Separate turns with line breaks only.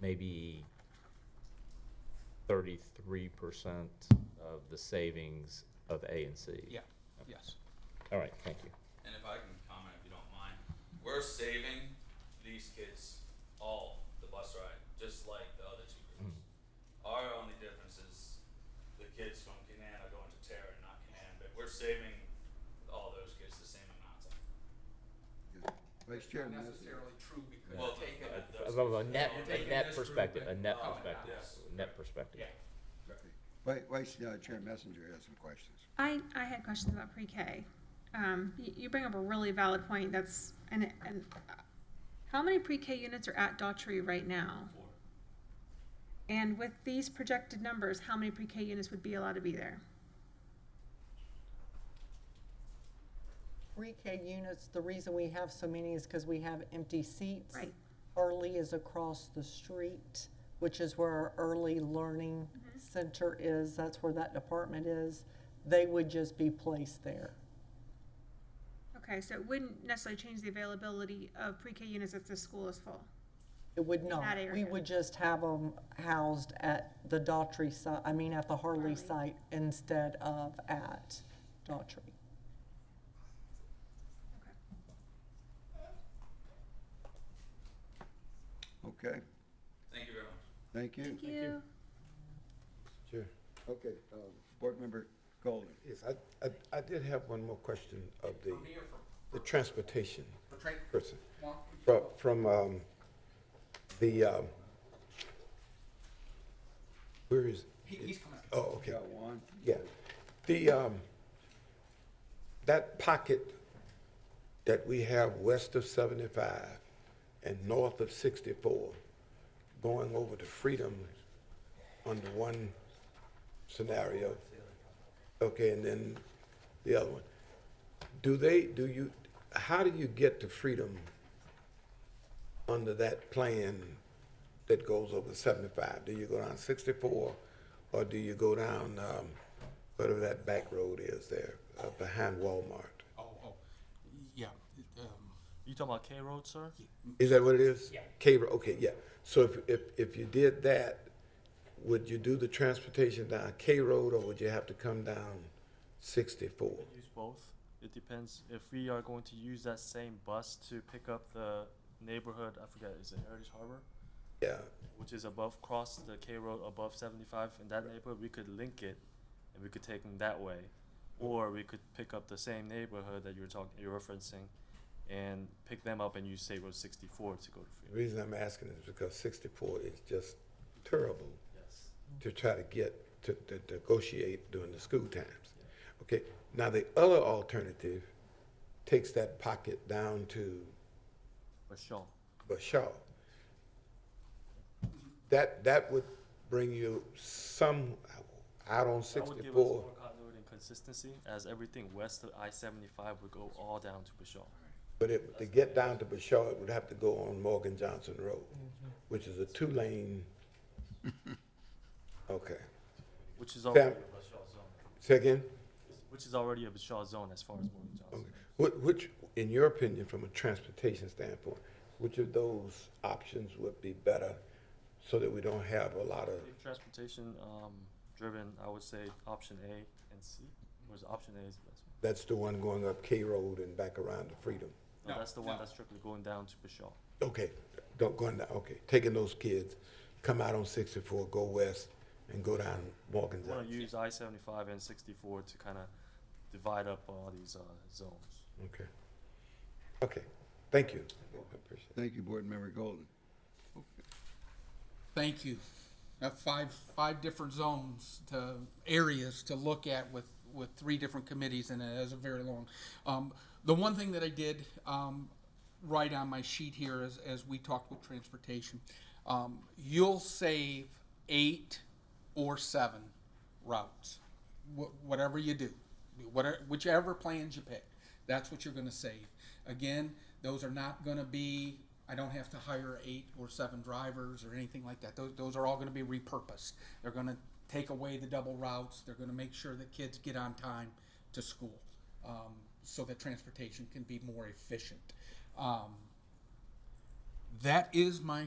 maybe thirty-three percent of the savings of A and C.
Yeah, yes.
All right, thank you.
And if I can comment, if you don't mind, we're saving these kids all the bus ride, just like the other two groups. Our only difference is the kids from Canaan are going to Terra and not Canaan, but we're saving all those kids the same amount of time.
Vice
It's not
Chairman, that's-
necessarily true because
Well,
you're taking,
uh,
Uh, From a net,
You're
a
taking
net
this group
perspective, a
and-
net
oh,
perspective,
yes.
net perspective.
yeah,
Vi- Vice uh, Chair Messenger has some questions.
I, I had questions about pre-K. Um, you, you bring up a really valid point, that's, and, and uh, how many pre-K units are at Daughtry right now?
Four.
And with these projected numbers, how many pre-K units would be allowed to be there?
Pre-K units, the reason we have so many is because we have empty seats.
Right.
Early is across the street, which is where our early learning
Mm-hmm.
center is. That's where that department is. They would just be placed there.
Okay, so it wouldn't necessarily change the availability of pre-K units if the school is full.
It would not. We
area.
would just have them housed at the Daughtry site, I mean, at the
Harley.
Harley site instead of at Daughtry.
Okay.
Okay,
Thank you very much.
thank you.
Thank you.
Sure.
Okay, um, Board Member Golden.
Yes, I, I, I did have one more question of the,
from here, from,
the transportation
for tra-
person.
Mark,
From, from, um, the, um, where is,
he, he's coming.
oh, okay,
Got one?
yeah. The, um, that pocket that we have west of seventy-five and north of sixty-four, going over to Freedom under one scenario, okay, and then the other one. Do they, do you, how do you get to Freedom under that plan that goes over seventy-five? Do you go down sixty-four, or do you go down, um, whatever that back road is there, uh, behind Walmart?
Oh, oh, yeah, um,
You talking about K Road, sir?
Is that what it is? Yeah. K, okay, yeah. So if, if, if you did that, would you do the transportation down K Road or would you have to come down sixty-four?
Use both. It depends if we are going to use that same bus to pick up the neighborhood. I forget. Is it Heritage Harbor,
Yeah,
which is above cross the K Road above seventy five in that neighborhood? We could link it, and we could take them that way, or we could pick up the same neighborhood that you're talking, you're referencing, and pick them up and use State Road sixty four to go to
the
Freedom.
reason I'm asking is because sixty-four is just terrible
Yes.
to try to get, to, to negotiate during the school times. Okay, now the other alternative takes that pocket down to
For sure.
Bashaw. That, that would bring you some, out on
That would give us more
sixty-four.
continuity and consistency, as everything west of I seventy five would go all down to Bashaw.
But it, to get down to Bashaw, it would have to go on Morgan Johnson Road, which is a two-lane. Okay.
Which is already
Fam-
a Bashaw zone.
Say again?
Which is already a Bashaw zone as far as Morgan Johnson.
Which, which, in your opinion, from a transportation standpoint, which of those options would be better so that we don't have a lot of,
If Transportation um, driven, I would say option A and C. Whereas option A is the best one.
that's the one going up K Road and back around to Freedom?
No,
No,
that's the one
no.
that's strictly going down to Bashaw.
Okay, don't go in that, okay, taking those kids, come out on sixty-four, go west, and go down Morgan
We want to
Johnson.
use I seventy five and sixty four to kind of divide up all these uh, zones.
Okay. Okay, thank you. I appreciate it.
Thank you, Board Member Golden.
Thank you. Have five, five different zones to, areas to look at with, with three different committees and it is a very long. Um, the one thing that I did, um, write on my sheet here is, as we talked with transportation, um, you'll save eight or seven routes, wh- whatever you do, whatever, whichever plans you pick, that's what you're gonna save. Again, those are not gonna be, I don't have to hire eight or seven drivers or anything like that. Those, those are all gonna be repurposed. They're gonna take away the double routes, they're gonna make sure that kids get on time to school, um, so that transportation can be more efficient. Um, that is my